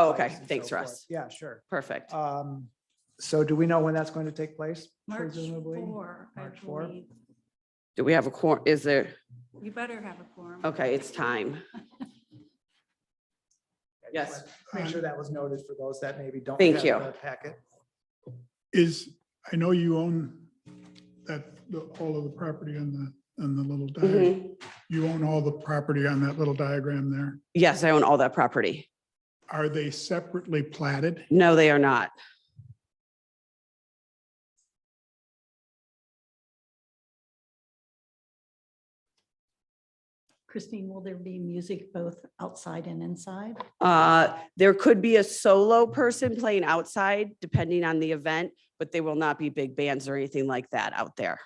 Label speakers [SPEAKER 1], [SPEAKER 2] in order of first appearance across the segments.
[SPEAKER 1] Oh, okay.
[SPEAKER 2] price and
[SPEAKER 1] Thanks,
[SPEAKER 2] so forth.
[SPEAKER 1] Russ.
[SPEAKER 2] Yeah, sure.
[SPEAKER 1] Perfect.
[SPEAKER 2] Um, so do we know when that's going to take place?
[SPEAKER 3] March
[SPEAKER 2] Presumably?
[SPEAKER 3] four, I
[SPEAKER 2] March four?
[SPEAKER 3] believe.
[SPEAKER 1] Do we have a quorum? Is there,
[SPEAKER 3] You better have a quorum.
[SPEAKER 1] okay, it's time. Yes.
[SPEAKER 2] Make sure that was noted for those that maybe don't.
[SPEAKER 1] Thank
[SPEAKER 2] have
[SPEAKER 1] you.
[SPEAKER 2] the Packet.
[SPEAKER 4] Is, I know you own that, the- all of the property on the, on the little diagram.
[SPEAKER 2] Mm-hmm.
[SPEAKER 1] Mhm.
[SPEAKER 4] You own all the property on that little diagram there.
[SPEAKER 1] Yes, I own all that property.
[SPEAKER 4] Are they separately platted?
[SPEAKER 1] No, they are not.
[SPEAKER 3] Christine, will there be music both outside and inside?
[SPEAKER 1] Uh, there could be a solo person playing outside depending on the event, but they will not be big bands or anything like that out there.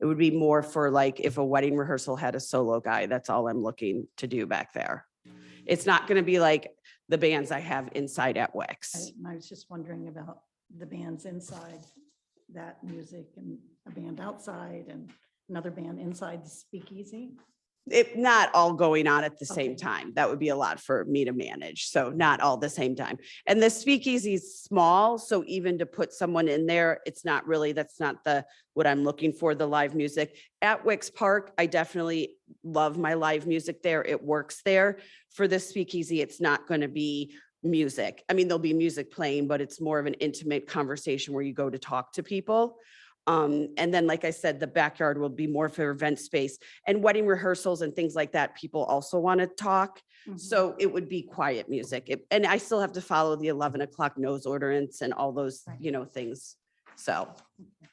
[SPEAKER 1] It would be more for like if a wedding rehearsal had a solo guy, that's all I'm looking to do back there. It's not gonna be like the bands I have inside at
[SPEAKER 3] I-
[SPEAKER 1] Wix.
[SPEAKER 3] And I was just wondering about the bands inside, that music and a band outside and another band inside the speakeasy.
[SPEAKER 1] It, not all going on at the same
[SPEAKER 3] Okay.
[SPEAKER 1] time. That would be a lot for me to manage. So not all the same time. And the speakeasy is small, so even to put someone in there, it's not really, that's not the, what I'm looking for, the live music. At Wicks Park, I definitely love my live music there. It works there. For the speakeasy, it's not going to be music. I mean, there'll be music playing, but it's more of an intimate conversation where you go to talk to people. Um, and then, like I said, the backyard will be more for event space and wedding rehearsals and things like that. People also want to talk.
[SPEAKER 3] Mm-hmm.
[SPEAKER 5] Mm-hmm.
[SPEAKER 1] So it would be quiet music. It- And I still have to follow the 11 o'clock nose ordinance and all those,
[SPEAKER 3] Right.
[SPEAKER 1] you know, things. So. Mhm.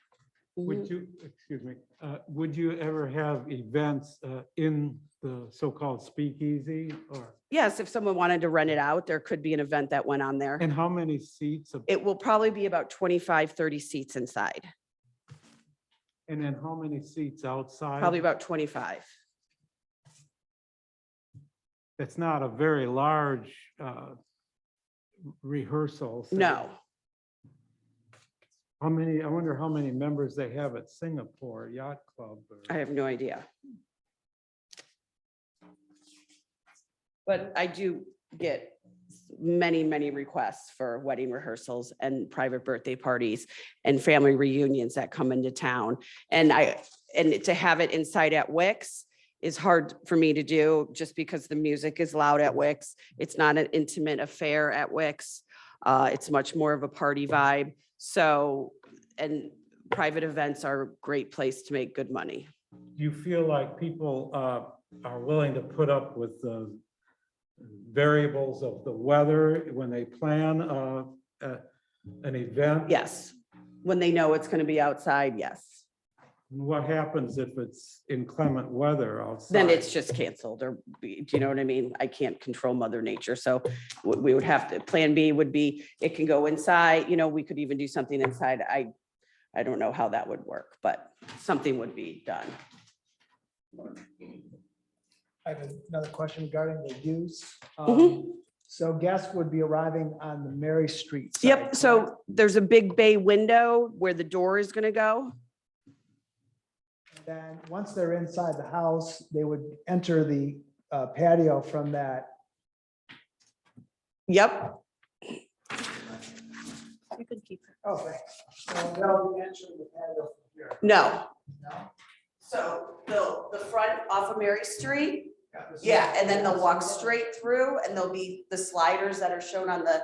[SPEAKER 5] Would you, excuse me, uh, would you ever have events uh, in the so-called speakeasy or,
[SPEAKER 1] Yes, if someone wanted to rent it out, there could be an event that went on there.
[SPEAKER 5] and how many seats? of-
[SPEAKER 1] It will probably be about 25, 30 seats inside,
[SPEAKER 5] And then how many seats outside?
[SPEAKER 1] probably about 25.
[SPEAKER 5] It's not a very large uh, rehearsal. so-
[SPEAKER 1] No,
[SPEAKER 5] How many, I wonder how many members they have at Singapore Yacht Club? or-
[SPEAKER 1] I have no idea. But I do get many, many requests for wedding rehearsals and private birthday parties and family reunions that come into town. And I, and to have it inside at Wix is hard for me to do just because the music is loud at Wix. It's not an intimate affair at Wix. Uh, it's much more of a party vibe. So, and private events are a great place to make good money.
[SPEAKER 5] Do you feel like people uh, are willing to put up with the variables of the weather when they plan uh, uh, an event?
[SPEAKER 1] Yes. When they know it's going to be outside, yes.
[SPEAKER 5] What happens if it's inclement weather outside?
[SPEAKER 1] Then it's just canceled or, be- do you know what I mean? I can't control mother nature. So we we would have to, plan B would be, it can go inside, you know, we could even do something inside. I, I don't know how that would work, but something would be done.
[SPEAKER 2] I have another question regarding the use.
[SPEAKER 1] Mhm.
[SPEAKER 2] Um, So guests would be arriving on the Mary Street. side,
[SPEAKER 1] Yep,
[SPEAKER 2] correct?
[SPEAKER 1] so there's a big bay window where the door is going to go.
[SPEAKER 2] Then, once they're inside the house, they would enter the uh, patio from that.
[SPEAKER 1] Yep,
[SPEAKER 3] You could keep it.
[SPEAKER 2] Oh, thanks. So they'll be entering the patio from here.
[SPEAKER 1] no.
[SPEAKER 2] No?
[SPEAKER 1] So the, the front off of Mary Street
[SPEAKER 2] this is-
[SPEAKER 1] Yeah, and then they'll walk straight through and there'll be the sliders that are shown on the,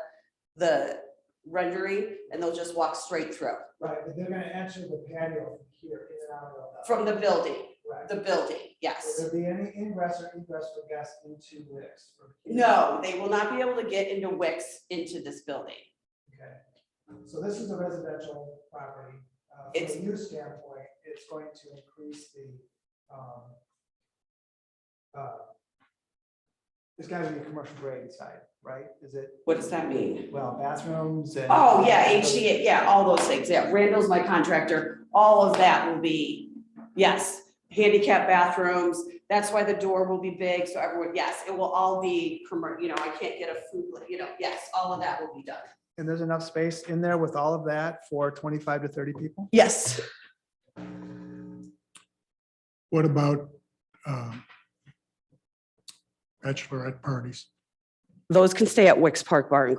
[SPEAKER 1] the rendering and they'll just walk straight through
[SPEAKER 2] Right, but they're gonna enter the patio from here, in and out of the.
[SPEAKER 1] from the building,
[SPEAKER 2] Right.
[SPEAKER 1] the building, yes.
[SPEAKER 2] Will there be any ingress or egress for guests into Wix? from here?
[SPEAKER 1] No, they will not be able to get into Wix into this building.
[SPEAKER 2] Okay. So this is a residential property. Uh, From
[SPEAKER 1] It's-
[SPEAKER 2] a use standpoint, it's going to increase the, um, uh, it's gotta be a commercial grade inside, right? Is it,
[SPEAKER 1] What does that mean?
[SPEAKER 2] well, bathrooms and.
[SPEAKER 1] Oh, yeah, HDA, yeah, all those things, yeah. Randall's my contractor, all of that will be, yes. Handicap bathrooms, that's why the door will be big, so everyone, yes, it will all be, commer- you know, I can't get a food, you know, yes, all of that will be done.
[SPEAKER 2] And there's enough space in there with all of that for twenty-five to thirty people?
[SPEAKER 1] Yes.
[SPEAKER 4] What uh, about um, bachelorette parties?
[SPEAKER 1] Those can stay at Wicks Park Bar and